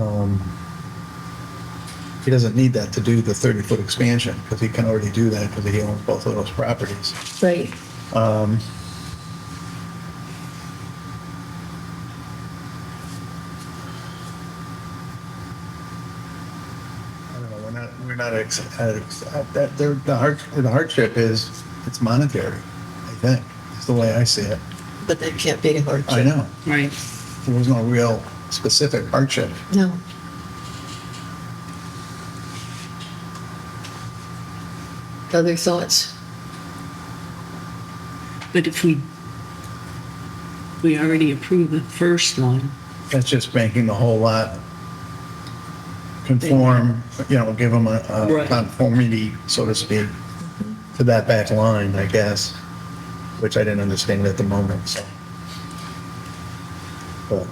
Um, He doesn't need that to do the 30-foot expansion, because he can already do that, because he owns both of those properties. Right. Um, I don't know, we're not, we're not, ex- at ex- at that, there- the hardship, the hardship is, it's monetary, I think, is the way I see it. But that can't be a hardship. I know, Right. there was no real specific hardship. No. Other thoughts? But if we, we already approved the first one, That's just making the whole lot conform, you know, give them a, a Right. conformity, so to speak, to that back line, I guess, which I didn't understand at the moment, so. But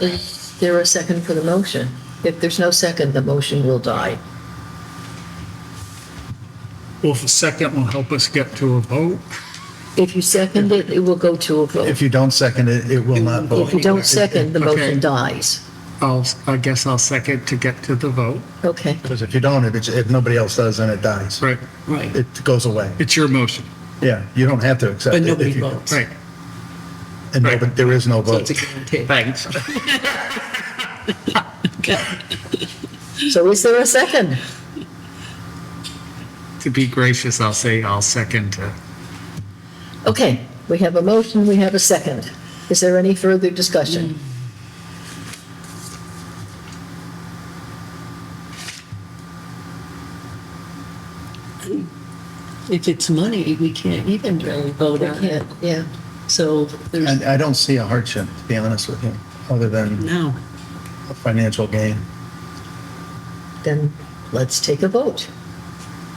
Is there a second for the motion? If there's no second, the motion will die. Well, if a second will help us get to a vote, If you second it, it will go to a vote. If you don't second it, it will not vote. If you don't second, the motion Okay. dies. I'll, I guess I'll second to get to the vote. Okay. Because if you don't, if, it's- if nobody else does, then it dies. Right. right, It goes away. It's your motion. Yeah, you don't have to accept it. but if nobody you- votes. Right. And no- but there is no So vote. it's a guarantee. Thanks. So is there a second? To be gracious, I'll say I'll second to. Okay, we have a motion, we have a second. Is there any further discussion? If it's money, we can't even really vote We on it. can't, yeah. So there's, I, I don't see a hardship, to be honest with you, other than no, a financial gain. Then let's take a vote.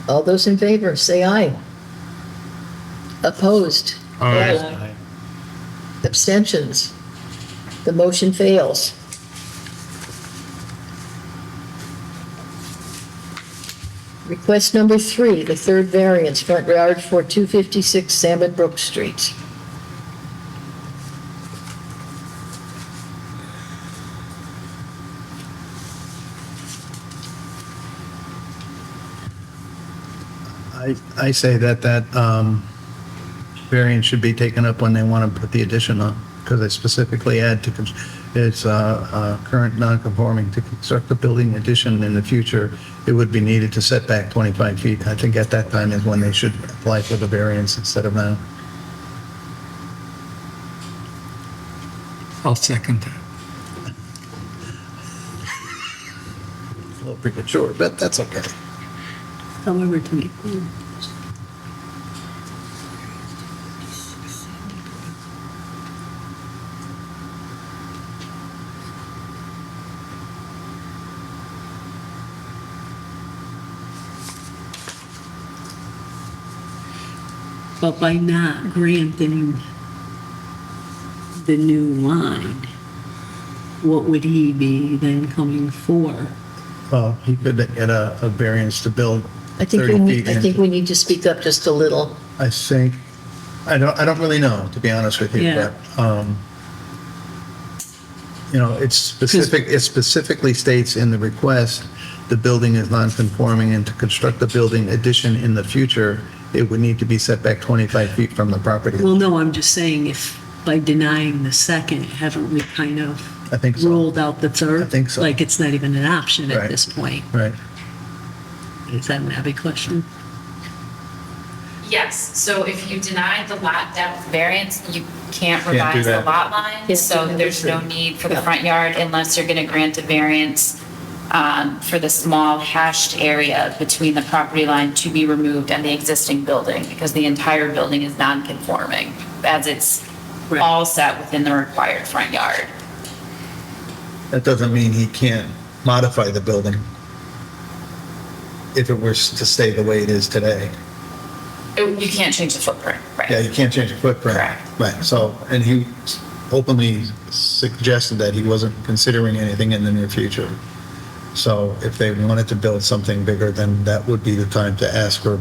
All those in favor, say aye. Opposed? Aye. Abstentions? The motion fails. Request number three, the third variance, front yard for 256 Salmon Brook Street. I, I say that that um, variance should be taken up when they want to put the addition on, because they specifically add to, con- it's uh, uh, current non-conforming to construct a building addition in the future, it would be needed to set back 25 feet. I think at that time is when they should apply for the variance instead of now. I'll second that. A little premature, but that's okay. however, to me, but by not granting the new line, what would he be then coming for? Well, he could get a, a variance to build I think we 30 need, feet I in. think we need to speak up just a little. I think, I don't, I don't really know, to be honest with you, Yeah. but, um, you know, it's specific, it specifically states in the request, the building is non-conforming and to construct the building addition in the future, it would need to be set back 25 feet from the property. Well, no, I'm just saying if by denying the second, haven't we kind of I think so, ruled out the third? I think so. Like it's not even an option Right. at this point. right? Is that a heavy question? Yes, so if you deny the lot depth variance, you can't do revise the that. lot line. Yes, So you there's no understand. need for the Yeah. front yard unless you're going to grant a variance um, for the small hashed area between the property line to be removed and the existing building because the entire building is non-conforming as it's Right. all set within the required front yard. That doesn't mean he can't modify the building if it were s- to stay the way it is today. Oh. It- You can't change the footprint, right? Yeah, you can't change the footprint. Correct. Right, so, and he openly suggested that he wasn't considering anything in the near future. So if they wanted to build something bigger, then that would be the time to ask for a